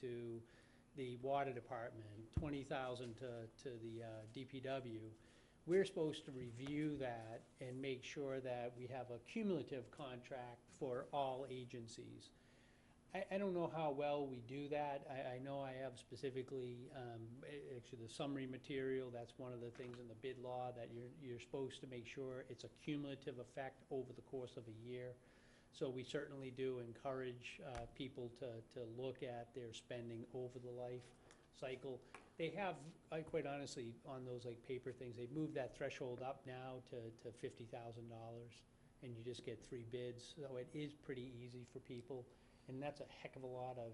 to the water department, twenty thousand to, to the uh, DPW. We're supposed to review that and make sure that we have a cumulative contract for all agencies. I, I don't know how well we do that. I, I know I have specifically, um, a- actually, the summary material, that's one of the things in the bid law, that you're, you're supposed to make sure it's a cumulative effect over the course of a year. So we certainly do encourage uh, people to, to look at their spending over the life cycle. They have, I quite honestly, on those like paper things, they've moved that threshold up now to, to fifty thousand dollars, and you just get three bids, so it is pretty easy for people, and that's a heck of a lot of,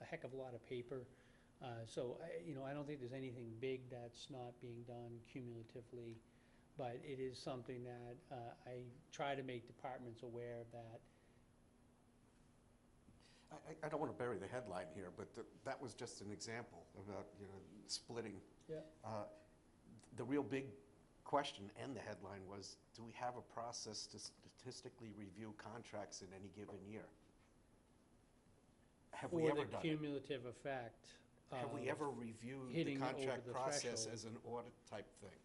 a heck of a lot of paper. Uh, So, I- you know, I don't think there's anything big that's not being done cumulatively, but it is something that uh, I try to make departments aware of that, I, I- I don't want to bury the headline here, but th- that was just an example about, you know, splitting. Yeah. Uh, The real big question and the headline was, do we have a process to statistically review contracts in any given year? Have we for ever the done it? cumulative effect. Have we of- ever reviewed the hitting it over contract the process threshold? as an audit type thing?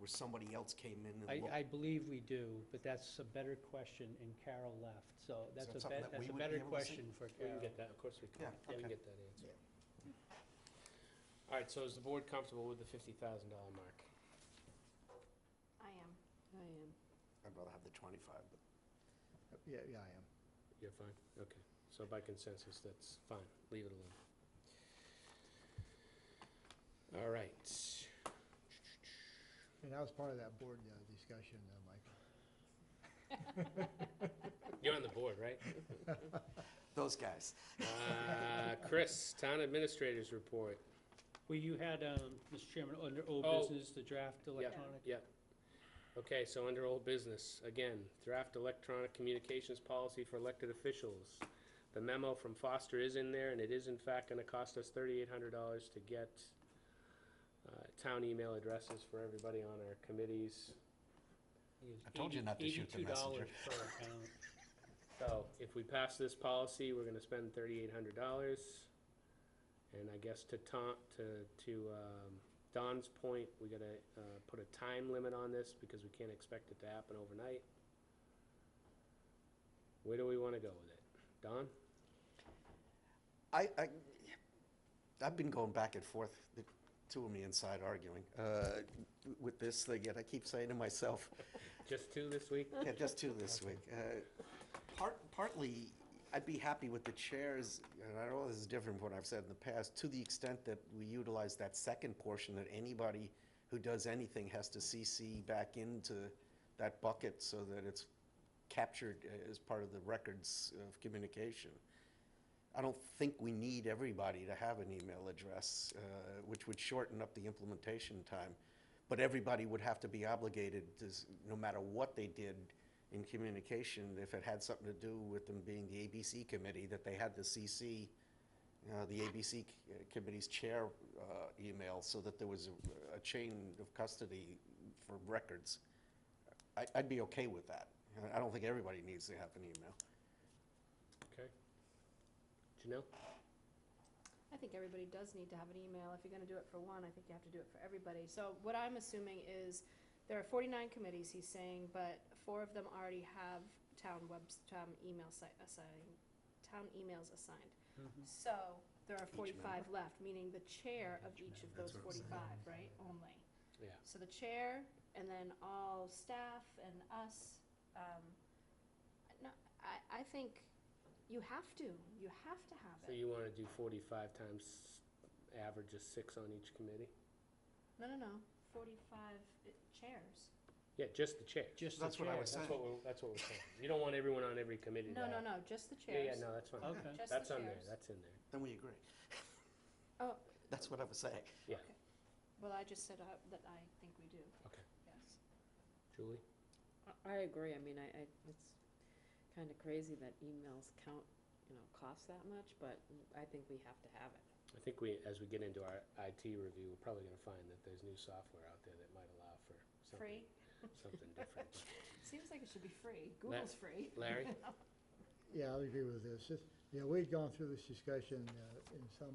Where somebody else came in I, and looked? I believe we do, but that's a better question, and Carol left, so that that's a, something bet- that that's we a would be better able to see? question for We Carol. can get that, of course we can. Yeah, we can okay. get that answer. Yeah. All right, so is the board comfortable with the fifty thousand dollar mark? I am. I am. I'd rather have the 25, but Yeah, yeah, I am. You're fine? Okay. So by consensus, that's fine. Leave it alone. All right. And I was part of that board uh, discussion, uh, Mike. You're on the board, right? those guys. Uh, Chris, Town Administrators Report. Well, you had, um, Mr. Chairman, under old Oh. business, the draft electronic. Yep. Okay, so under old business, again, draft electronic communications policy for elected officials. The memo from Foster is in there, and it is in fact gonna cost us thirty-eight hundred dollars to get uh, town email addresses for everybody on our committees. It was I told you not to shoot the messenger. $82 per account. So if we pass this policy, we're gonna spend thirty-eight hundred dollars. And I guess to Tom, to, to um, Don's point, we gotta uh, put a time limit on this because we can't expect it to happen overnight. Where do we wanna go with it? Don? I, I, I've been going back and forth, the two of me inside arguing, uh, with this thing, and I keep saying to myself, Just two this week? yeah, just two this week. Uh, Part, partly, I'd be happy with the chairs, and I know this is different from what I've said in the past, to the extent that we utilize that second portion, that anybody who does anything has to CC back into that bucket so that it's captured uh, as part of the records of communication. I don't think we need everybody to have an email address, uh, which would shorten up the implementation time. But everybody would have to be obligated to, s- no matter what they did in communication, if it had something to do with them being the ABC committee, that they had to CC, uh, the ABC c- uh, committee's chair uh, email so that there was a- a chain of custody for records. I- I'd be okay with that. I- I don't think everybody needs to have an email. Okay. Janelle? I think everybody does need to have an email. If you're gonna do it for one, I think you have to do it for everybody. So what I'm assuming is, there are forty-nine committees, he's saying, but four of them already have town webs, town email site assigned, town emails assigned. Mm-hmm. So there are forty-five left, meaning the chair of each of those forty-five, right, only. Yeah. So the chair, and then all staff and us, um, no, I, I think you have to, you have to have So it. you wanna do forty-five times average of six on each committee? No, no, no, forty-five i- chairs. Yeah, just the chair. Just the That's what I chair. was That's what we're, that's what we're saying. You don't want everyone on every committee to No, have- no, no, just the Yeah, yeah, chairs. no, that's fine. Okay. Just the That's on there, chairs. that's in there. Then we agree. Oh, That's what I was saying. well, I just said I- that I think we do. Okay. Yes. Julie? I- I agree, I mean, I, I, it's kinda crazy that emails count, you know, cost that much, but I think we have to have it. I think we, as we get into our IT review, we're probably gonna find that there's new software out there that might allow for something, Free, something different. seems like it should be free, Google's free. Larry? Yeah, I agree with this. It's- You know, we'd gone through this discussion uh, in some